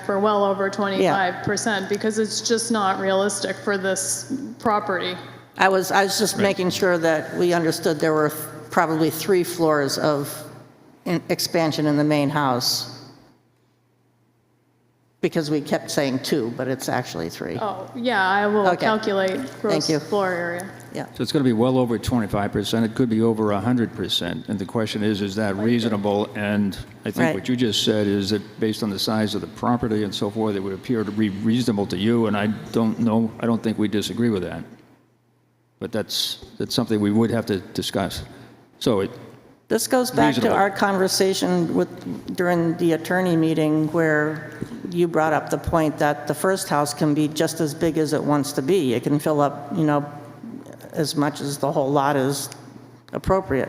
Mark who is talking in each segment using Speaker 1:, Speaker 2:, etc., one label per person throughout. Speaker 1: for well over 25% because it's just not realistic for this property.
Speaker 2: I was, I was just making sure that we understood there were probably three floors of in- expansion in the main house, because we kept saying two, but it's actually three.
Speaker 1: Oh, yeah, I will
Speaker 2: Okay.
Speaker 1: calculate gross
Speaker 2: you.
Speaker 1: floor area.
Speaker 2: Yeah.
Speaker 3: So it's going to be well over 25%. It could be over 100%. And the question is, is that reasonable? And I
Speaker 2: Right.
Speaker 3: think what you just said is that based on the size of the property and so forth, it would appear to be reasonable to you, and I don't know, I don't think we disagree with that. But that's, that's something we would have to discuss. So it,
Speaker 2: This goes back to
Speaker 3: Reasonable.
Speaker 2: our conversation with, during the attorney meeting where you brought up the point that the first house can be just as big as it wants to be. It can fill up, you know, as much as the whole lot is appropriate.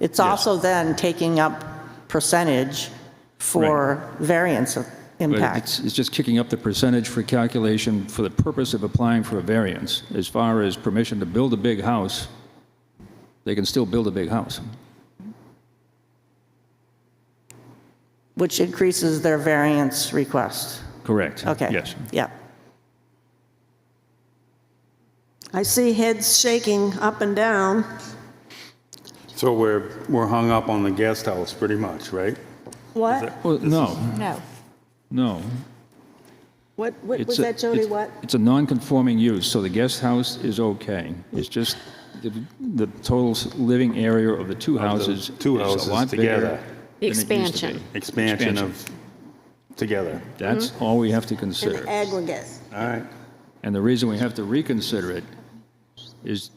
Speaker 2: It's also then taking up percentage for variance of
Speaker 3: but
Speaker 2: impact.
Speaker 3: it's, it's just kicking up the percentage for calculation for the purpose of applying for a variance. As far as permission to build a big house, they can still build a big house.
Speaker 2: Which increases their variance request.
Speaker 3: Correct.
Speaker 2: Okay.
Speaker 3: Yes.
Speaker 2: Yeah.
Speaker 4: I see heads shaking up and down.
Speaker 5: So we're, we're hung up on the guest house pretty much, right?
Speaker 4: What?
Speaker 3: Well, no.
Speaker 6: No.
Speaker 3: No.
Speaker 4: What, what
Speaker 3: it's
Speaker 4: was
Speaker 3: a-
Speaker 4: that, Jody?
Speaker 3: it's-
Speaker 4: What?
Speaker 3: It's a non-conforming use, so the guest house is okay. It's just the, the total s- living area of the two houses is a
Speaker 5: two houses
Speaker 3: lot bigger
Speaker 5: together.
Speaker 3: than
Speaker 6: The
Speaker 3: it used to be.
Speaker 6: expansion.
Speaker 5: Expansion of, together.
Speaker 3: That's
Speaker 4: Mm-hmm.
Speaker 3: all we have to
Speaker 4: In
Speaker 3: consider.
Speaker 4: the aggregate.
Speaker 5: All right.
Speaker 3: And the reason we have to reconsider it is,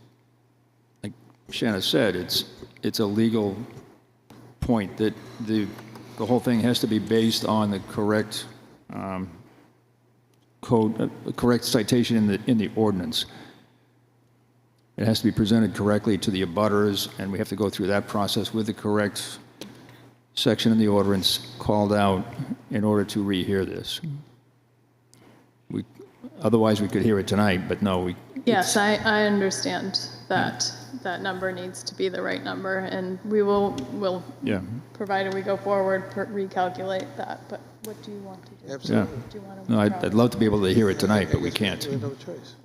Speaker 3: like Shanna said, it's, it's a legal point that the, the whole thing has to be based on the correct um, code, uh, the correct citation in the, in the ordinance. It has to be presented correctly to the abutters, and we have to go through that process with the correct section in the ordinance called out in order to rehear this. We, otherwise, we could hear it tonight, but no, we,
Speaker 1: Yes, I, I understand that, that number needs to be the right number, and we will, will,
Speaker 3: yeah,
Speaker 1: provided we go forward, per- recalculate that, but what do you want to do?
Speaker 3: yeah.
Speaker 1: Do you want to?
Speaker 3: No, I'd, I'd love to be able to hear it tonight, but we can't.
Speaker 7: We have no choice.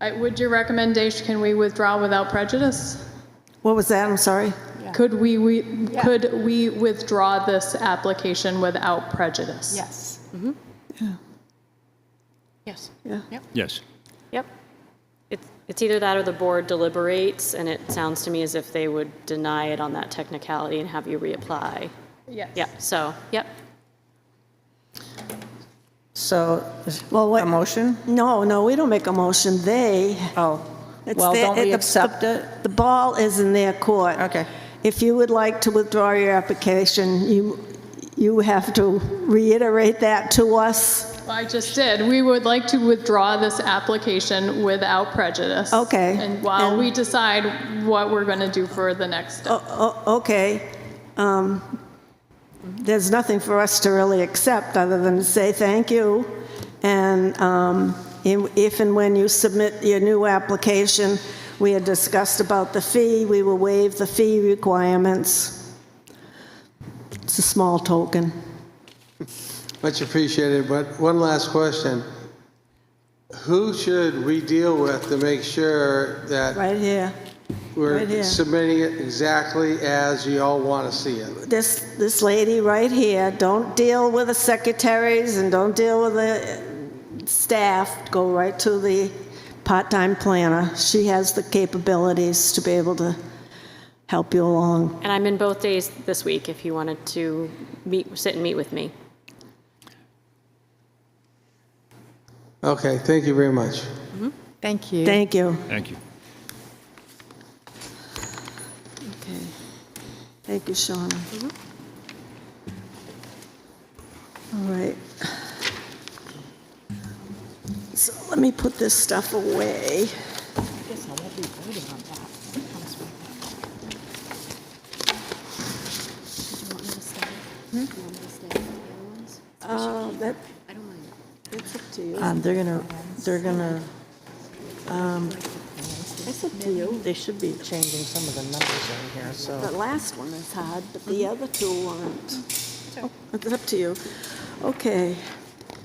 Speaker 1: I- Would your recommendation, can we withdraw without prejudice?
Speaker 4: What was that? I'm sorry.
Speaker 1: Could we, we, could we withdraw this application without prejudice?
Speaker 6: Yes. Yes.
Speaker 4: Yeah.
Speaker 3: Yes.
Speaker 8: Yep. It's, it's either that or the board deliberates, and it sounds to me as if they would deny it on that technicality and have you reapply.
Speaker 1: Yes.
Speaker 8: Yep, so, yep.
Speaker 2: So, is-
Speaker 4: Well, what-
Speaker 2: a motion?
Speaker 4: No, no, we don't make a motion. They.
Speaker 2: Oh,
Speaker 4: it's
Speaker 2: well,
Speaker 4: their-
Speaker 2: don't we
Speaker 4: the-
Speaker 2: accept
Speaker 4: the-
Speaker 2: it?
Speaker 4: The ball is in their court.
Speaker 2: Okay.
Speaker 4: If you would like to withdraw your application, you, you have to reiterate that to us.
Speaker 1: I just did. We would like to withdraw this application without prejudice.
Speaker 4: Okay.
Speaker 1: And while
Speaker 4: And-
Speaker 1: we decide what we're going to do for the next step.
Speaker 4: O- o- Oh, Okay. Um, There's nothing for us to really accept other than to say thank you. And um, in- if and when you submit your new application, we had discussed about the fee, we will waive the fee requirements. It's a small token.
Speaker 7: Much appreciated, but one last question. Who should we deal with to make sure that
Speaker 4: Right here. right
Speaker 7: we're
Speaker 4: here.
Speaker 7: submitting it exactly as you all want to see it?
Speaker 4: This, this lady right here, don't deal with the secretaries and don't deal with the staff. Go right to the part-time planner. She has the capabilities to be able to help you along.
Speaker 8: And I'm in both days this week if you wanted to meet, sit and meet with me.
Speaker 7: Okay, thank you very much.
Speaker 6: Thank you.
Speaker 4: Thank you.
Speaker 3: Thank you.
Speaker 6: Okay.
Speaker 4: Thank you, Shauna. All right. So let me put this stuff away. Uh, that, that's up to you.
Speaker 2: Um, They're going to, they're going to,
Speaker 4: That's up to you.
Speaker 2: they should be changing some of the numbers in here, so.
Speaker 4: The last one is hard, but the other two aren't. Oh, It's up to you. Okay.